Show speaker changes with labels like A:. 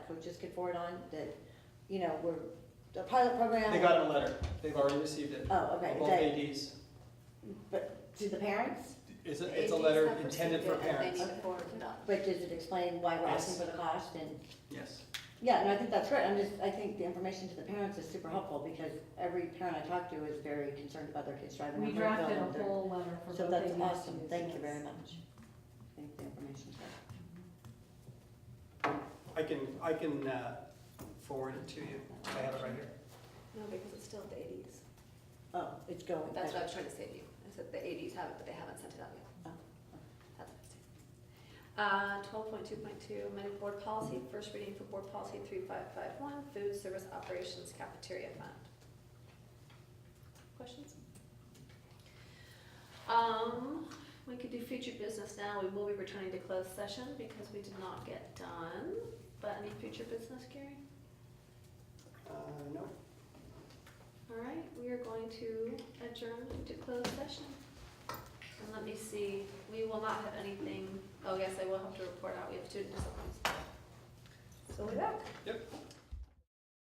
A: coaches could forward on, that, you know, we're, the pilot program.
B: They got a letter, they've already received it,
A: Oh, okay,
B: both
A: that,
B: ADs.
A: but to the parents,
B: It's
C: The
B: a, it's a
C: ADs
B: letter
C: have
B: intended for
C: received it, and
B: parents,
C: They need to forward it up.
A: but does it explain why we're asking
B: Yes.
A: for the cost and?
B: yes.
A: Yeah, no, I think that's great, I'm just, I think the information to the parents is super helpful, because every parent I talk to is very concerned about their kids driving.
D: We
A: around Brookville
D: drafted
A: and
D: a
A: their-
D: whole letter for both
A: So that's
D: ABCs,
A: awesome, thank you
D: yes.
A: very much. I think the information's helpful.
B: I can, I can uh, forward it to you, I have it right here.
C: No, because it's still the eighties.
A: Oh, it's going.
C: That's what I was trying to say to you. I said the eighties have it, but they haven't sent it out yet.
A: Oh.
C: That's what I said. Uh, twelve point two point two, amended board policy, first reading for board policy three five five one, food service operations cafeteria fund. Questions? Um, we could do future business now. We will be returning to closed session because we did not get done. But any future business, Gary?
B: Uh, no,
C: All right, we are going to adjourn to closed session. And let me see, we will not have anything, oh, yes, I will have to report out, we have student disciplines. So we're back.
B: Yep.